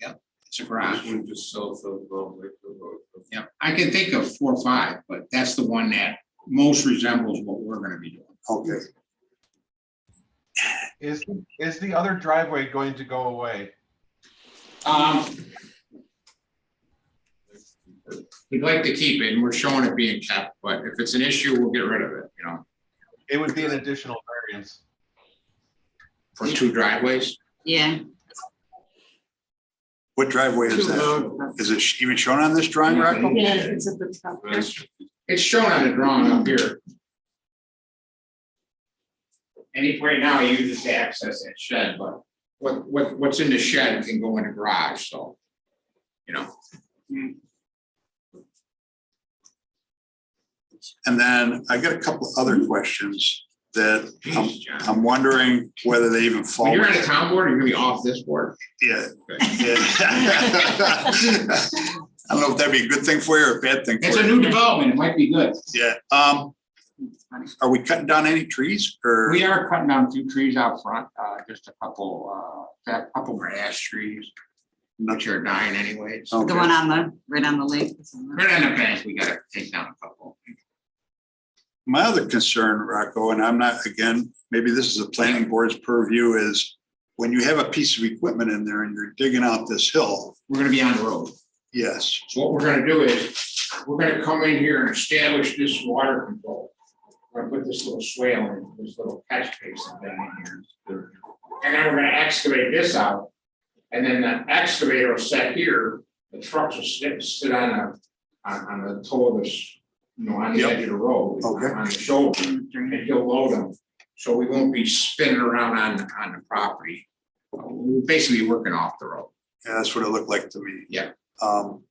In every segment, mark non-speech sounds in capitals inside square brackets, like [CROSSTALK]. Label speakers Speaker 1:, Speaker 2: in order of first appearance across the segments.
Speaker 1: It's a garage.
Speaker 2: One just south of, um, Lakewood Road.
Speaker 1: Yep, I can think of four or five, but that's the one that most resembles what we're gonna be doing.
Speaker 3: Okay,
Speaker 4: Is, is the other driveway going to go away?
Speaker 1: Um. We'd like to keep it, and we're showing it being kept, but if it's an issue, we'll get rid of it, you know,
Speaker 4: It would be an additional variance.
Speaker 1: for two driveways.
Speaker 5: Yeah.
Speaker 3: what driveway is that? Is it sh- even shown on this drawing, Rocco?
Speaker 5: Yeah, it's at the top. there.
Speaker 2: That's-
Speaker 1: It's shown on the drawing up here. And if right now, you just access that shed, but what, what, what's in the shed can go in the garage, so, you know. Mm-hmm.
Speaker 3: And then I got a couple other questions that I'm,
Speaker 1: Jeez, John.
Speaker 3: I'm wondering whether they even
Speaker 1: When
Speaker 3: fall.
Speaker 1: you're on a town board, you're gonna be off this board.
Speaker 3: Yeah. yeah. [LAUGHS] I don't know if that'd be a good thing for you or a bad thing
Speaker 1: It's
Speaker 3: for
Speaker 1: a
Speaker 3: you.
Speaker 1: new development, it might be good.
Speaker 3: Yeah, um, are we cutting down any trees or?
Speaker 1: We are cutting down two trees out front, uh, just a couple, uh, a couple more ash trees, which are dying anyways.
Speaker 3: Okay.
Speaker 5: The one on the, right on the lake.
Speaker 1: Right on the bank, we gotta take down a couple.
Speaker 3: My other concern, Rocco, and I'm not, again, maybe this is the planning board's purview, is when you have a piece of equipment in there and you're digging out this hill,
Speaker 1: We're gonna be on the road.
Speaker 3: yes,
Speaker 1: So what we're gonna do is, we're gonna come in here and establish this water control. We're gonna put this little swale in, this little catch basin thing in here. And then we're gonna excavate this out. And then the excavator will set here, the trucks will sit, sit on a, on, on the toe of this, you know, on the
Speaker 3: Yep.
Speaker 1: edge of the road.
Speaker 3: Okay.
Speaker 1: On the shoulder, and he'll load them, so we won't be spinning around on, on the property. Uh, We're basically working off the road.
Speaker 3: yeah, that's what it looked like to me.
Speaker 1: Yeah.
Speaker 3: Um,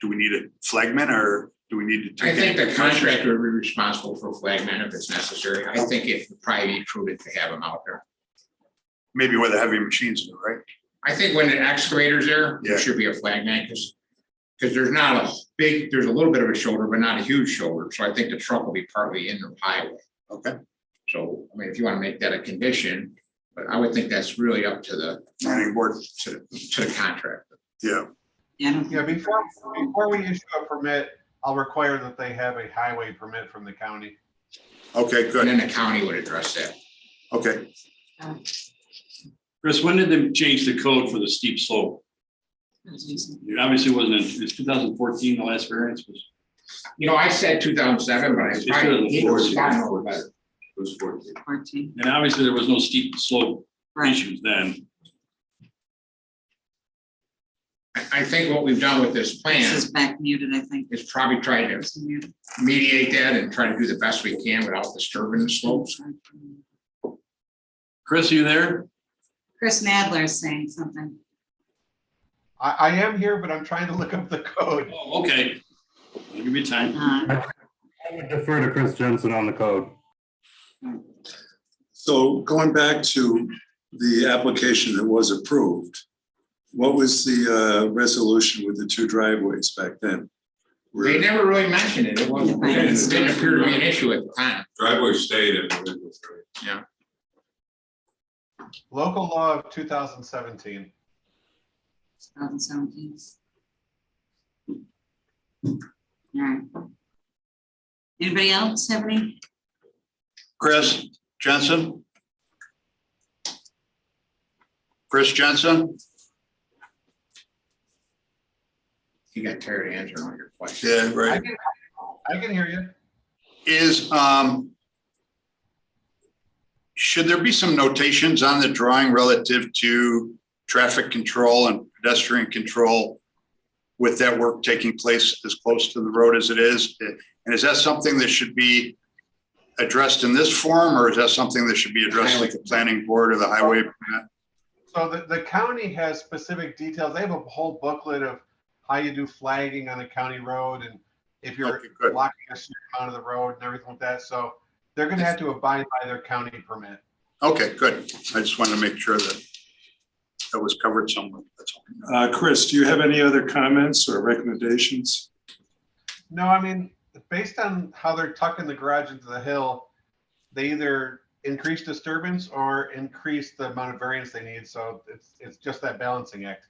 Speaker 3: do we need a flagman or do we need to?
Speaker 1: I
Speaker 3: take
Speaker 1: think
Speaker 3: any
Speaker 1: the contractor would be responsible for flagmen if it's necessary. I think it would probably be prudent to have them out there.
Speaker 3: Maybe where the heavy machines are, right?
Speaker 1: I think when an excavator's there,
Speaker 3: Yeah.
Speaker 1: there should be a flagman, because, because there's not a big, there's a little bit of a shoulder, but not a huge shoulder. So I think the truck will be partly in the highway.
Speaker 3: Okay.
Speaker 1: So, I mean, if you want to make that a condition, but I would think that's really up to the,
Speaker 3: Planning board,
Speaker 1: to, the- to the contractor.
Speaker 3: yeah,
Speaker 5: Yeah, I don't
Speaker 4: Yeah,
Speaker 5: think-
Speaker 4: before, before we issue a permit, I'll require that they have a highway permit from the county.
Speaker 3: okay,
Speaker 1: And
Speaker 3: good,
Speaker 1: then the county would address that.
Speaker 3: okay.
Speaker 6: Chris, when did they change the code for the steep slope?
Speaker 5: that's decent.
Speaker 6: It obviously wasn't, it's two thousand fourteen, the last variance was.
Speaker 1: You know, I said two thousand seven, but I
Speaker 6: It's
Speaker 1: probably.
Speaker 6: been
Speaker 1: he was
Speaker 6: forty.
Speaker 1: fine over better.
Speaker 2: It was fourteen.
Speaker 5: Fourteen,
Speaker 6: And obviously, there was no steep slope
Speaker 5: right.
Speaker 6: issues then.
Speaker 1: I, I think what we've done with this plan.
Speaker 5: This is back muted, I think.
Speaker 1: is probably try to
Speaker 5: It's muted.
Speaker 1: mediate that and try to do the best we can without disturbing the slopes.
Speaker 6: Chris, are you there?
Speaker 5: Chris Nadler is saying something.
Speaker 4: I, I am here, but I'm trying to look up the code.
Speaker 6: Oh, okay. I'll give you time.
Speaker 5: Uh,
Speaker 7: I would defer to Chris Jensen on the code.
Speaker 3: So going back to the application that was approved, what was the uh, resolution with the two driveways back then?
Speaker 1: They never really mentioned it. It wasn't,
Speaker 5: Yeah.
Speaker 1: it didn't appear to be an issue at the time.
Speaker 2: Driveway stayed in. the middle, right?
Speaker 4: Local law of two thousand seventeen.
Speaker 5: 2017. All right. Anybody else have any?
Speaker 3: Chris Jensen? Chris Jensen?
Speaker 1: You got tired of answering all your questions.
Speaker 3: Yeah,
Speaker 4: I
Speaker 3: right.
Speaker 4: can, I can hear you.
Speaker 3: Is, um, should there be some notations on the drawing relative to traffic control and pedestrian control with that work taking place as close to the road as it is? And is that something that should be addressed in this form, or is that something that should be addressed at the planning board or the highway?
Speaker 4: So the, the county has specific details. They have a whole booklet of how you do flagging on a county road and if you're
Speaker 3: Okay, good.
Speaker 4: blocking a certain amount of the road and everything like that. So they're gonna have to abide by their county permit.
Speaker 3: Okay, good. I just wanted to make sure that that was covered somewhere. That's all.
Speaker 8: Uh, Chris, do you have any other comments or recommendations?
Speaker 4: No, I mean, based on how they're tucking the garage into the hill, they either increase disturbance or increase the amount of variance they need. So it's, it's just that balancing act.